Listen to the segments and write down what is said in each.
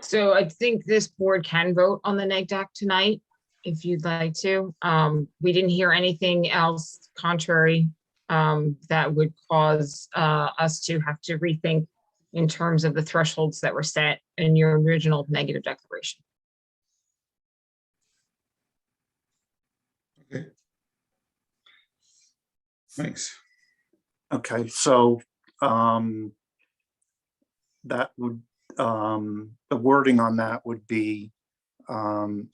So I think this board can vote on the neg deck tonight if you'd like to. Um, we didn't hear anything else contrary um, that would cause uh, us to have to rethink in terms of the thresholds that were set in your original negative declaration. Thanks. Okay, so, um, that would, um, the wording on that would be, um,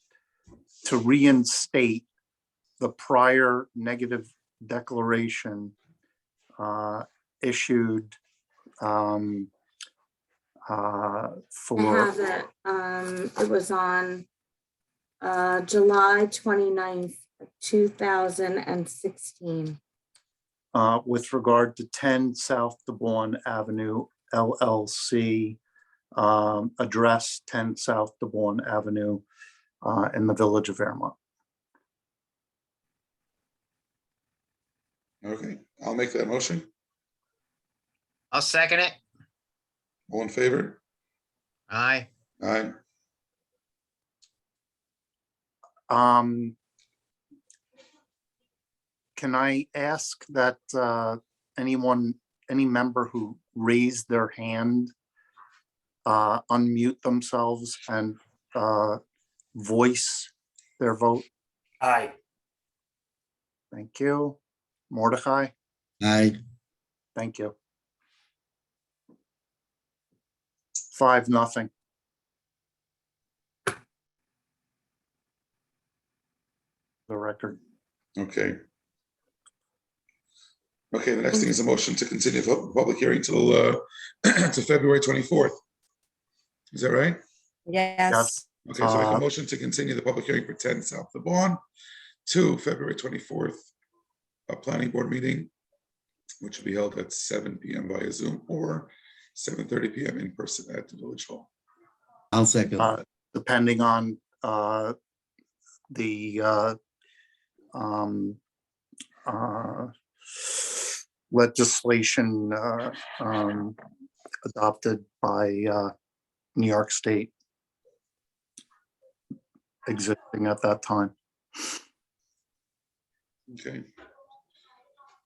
to reinstate the prior negative declaration, uh, issued, um, uh, I have for, it. Um, it was on uh, July 29th, thousand and sixteen. uh, with regard to ten South DeBorn Avenue LLC, um, address ten South DeBorn Avenue, uh, in the Village of Vermont. Okay, I'll make that motion. I'll second it. All in favor? Aye. Aye. Um, can I ask that, uh, anyone, any member who raised their hand uh, unmute themselves and, uh, voice their vote? Aye. Thank you. Mordecai, Aye. thank you. Five, nothing. The record. Okay. Okay, the next thing is a motion to continue the public hearing till, uh, to February 24th. Is that right? Yes. Yes. Okay, so I Uh, can motion to continue the public hearing for 10 South the Bond to February 24th, a planning board meeting, which will be held at seven PM via Zoom or 7:30 PM in person at the Village Hall. I'll second. Uh, depending on uh, the uh, um, uh, legislation uh, um, adopted by uh, New York State existing at that time. Okay.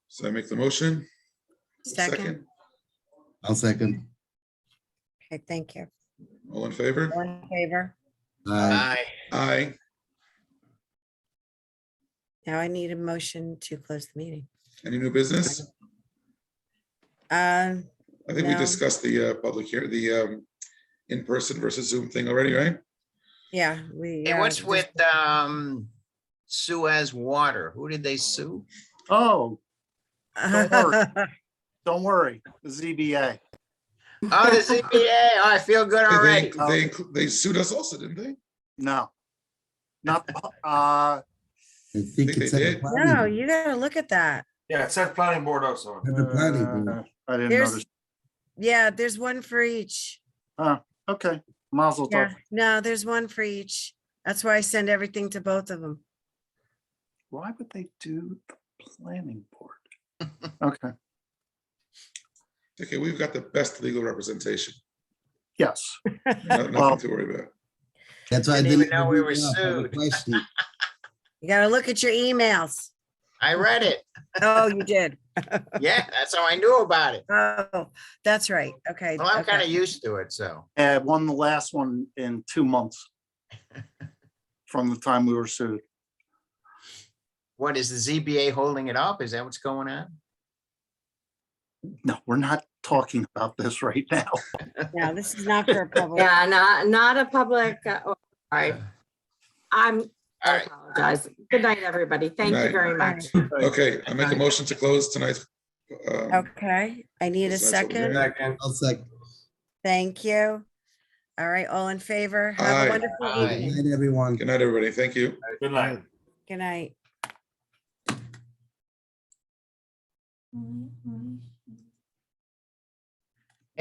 So I make the motion? Second. I'll second. Okay, thank you. All in favor? All in favor? Aye. Aye. Aye. Now I need a motion to close the meeting. Any new business? Um, I think we No. discussed the uh, public here, the um, in-person versus Zoom thing already, right? yeah, we. And uh, what's just- with, um, Suez Water? Who did they sue? Oh, don't worry, the ZBA. Oh, the ZBA. Oh, I feel good They- already. They, inclu- they sued us also, didn't they? No. Not, the- uh, I think they it's at the did. planning No, board. you gotta look at that. Yeah, it said planning board also. At the planning board. uh, I didn't There's- notice. Yeah, there's one for each. Okay, Mazel Yeah, Tov. no, there's one for each. That's why I send everything to both of them. Why would they do the planning board? Okay, Okay, we've got the best legal representation. yes. No- Well- Nothing to worry about. That's why I Didn't even didn't. know we look were it up. I have a sued. question. You gotta look at your emails. I read it. Oh, you did. Yeah, that's how I knew about it. Oh, that's right. Okay. Well, I'm okay. kind of used to it, so. Uh, won the last one in two months from the time we were sued. What, is the ZBA holding it up? Is that what's going on? No, we're not talking about this right now. No, this is not for a public. Yeah, not, not a public, uh, oh, sorry. I'm, All I right, apologize. Good night, everybody. Thank you Night. very All much. right, Okay, I make a motion to close tonight's. um, Okay, I need a That's what we second. got. Second. I'll second. Thank you. All right, all in favor? Have Aye. a wonderful Aye. Good evening. night, everyone. Good night, everybody. Thank you. Good night. Good night. Mm, mm.